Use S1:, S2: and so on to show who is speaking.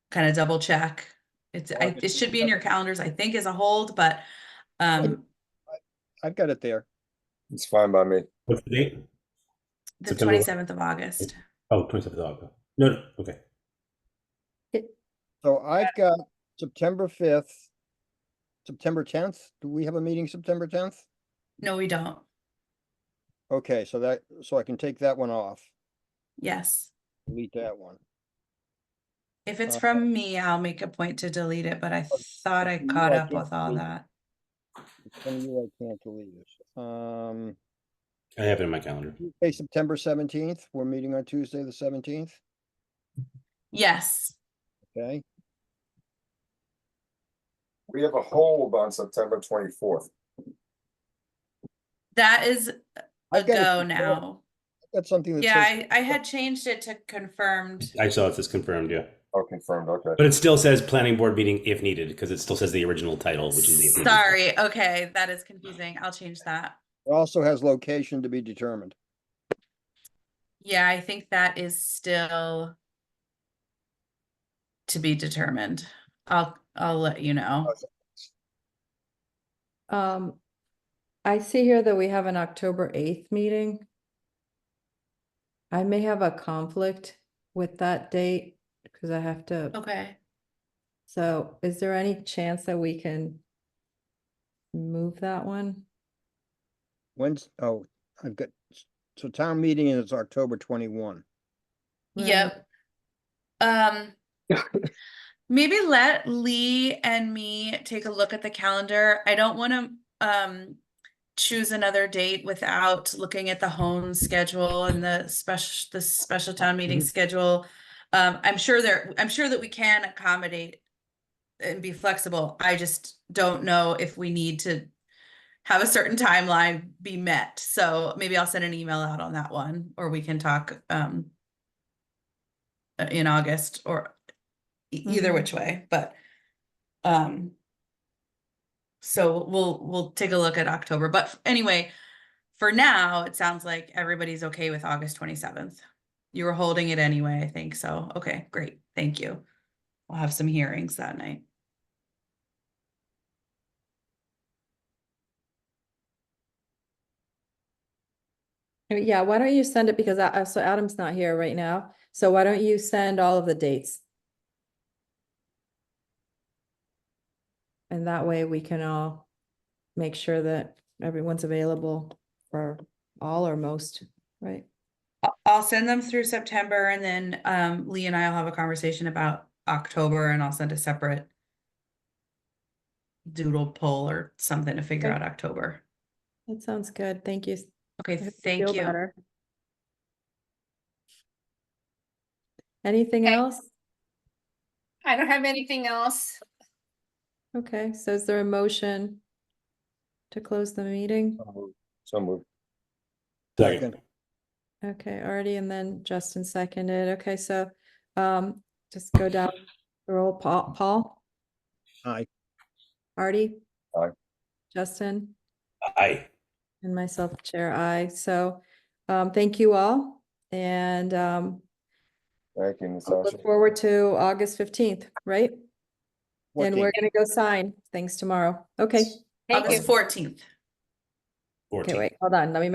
S1: kind of double check. It's, I, it should be in your calendars, I think, as a hold, but, um,
S2: I've got it there.
S3: It's fine by me.
S4: What's the date?
S1: the
S4: September what?
S1: twenty-seventh of August.
S4: Oh, 27th of August. No, no, okay.
S2: So I've got September fifth, September tenth. Do we have a meeting September tenth?
S1: No, we don't.
S2: Okay, so that, so I can take that one off,
S1: Yes.
S2: delete that one.
S1: If it's
S2: Uh,
S1: from me, I'll make a point to delete it, but I
S2: but-
S1: thought I
S2: but you
S1: caught
S2: are
S1: up with all
S2: definitely-
S1: that.
S2: Some of you I can't delete. Um,
S4: I have it in my calendar.
S2: Tuesday, September seventeenth, we're meeting on Tuesday, the seventeenth,
S1: Yes,
S2: okay?
S3: We have a hold on September twenty-fourth.
S1: that is a
S2: I've got it
S1: go
S2: confirmed.
S1: now.
S2: I've got something that
S1: Yeah,
S2: says,
S1: I, I had changed it to confirmed.
S4: I saw it says confirmed, yeah.
S3: Oh, confirmed, okay.
S4: But it still says planning board meeting if needed because it still says the original title, which is the. if needed.
S1: Sorry, okay, that is confusing. I'll change that.
S2: it also has location to be determined.
S1: Yeah, I think that is still to be determined. I'll, I'll let you know.
S5: Um, I see here that we have an October eighth meeting. I may have a conflict with that date because I have to,
S1: Okay.
S5: so is there any chance that we can move that one?
S2: When's, oh, I've got, so town meeting is October twenty-one.
S5: Right.
S1: Yep. Um, maybe let Lee and me take a look at the calendar. I don't want to um choose another date without looking at the home schedule and the special the special town meeting schedule. Um, I'm sure there, I'm sure that we can accommodate and be flexible. I just don't know if we need to have a certain timeline be met. So maybe I'll send an email out on that one, or we can talk um uh, in August or e- either
S5: Mhm.
S1: which way, but um so we'll we'll take a look at October, but f- anyway, for now, it sounds like everybody's okay with August 27th. You were holding it anyway, I think, so, okay, great, thank you. We'll have some hearings that night.
S5: Uh, Yeah, why don't you send it, because I, I- so Adam's not here right now, so why don't you send all of the dates? And that way we can all make sure that everyone's available for all or most, right?
S1: I'll- I'll send them through September and then um Lee and I'll have a conversation about October and I'll send a separate doodle poll or something to figure
S5: Okay.
S1: out October.
S5: That sounds good, thank you.
S1: Okay,
S5: I hope
S1: thank
S5: feel
S1: you.
S5: better. Anything
S6: Okay.
S5: else?
S6: I don't have anything else.
S5: Okay, so is there a motion to close the meeting?
S3: So moved.
S4: Second.
S5: Okay, already, and then Justin seconded. Okay, so um, just go down, the roll Paul, Paul,
S2: Aye.
S5: Artie.
S3: Aye.
S5: Justin
S4: Aye.
S5: and myself, Chair I. So um, thank you all. And um,
S3: Thank you,
S5: I'll
S3: Natasha.
S5: look forward to August fifteenth, right? And
S2: 14.
S5: we're gonna go sign things tomorrow. Okay,
S6: Thank you.
S1: August fourteenth.
S5: okay,
S4: 14th.
S5: wait, hold on, let me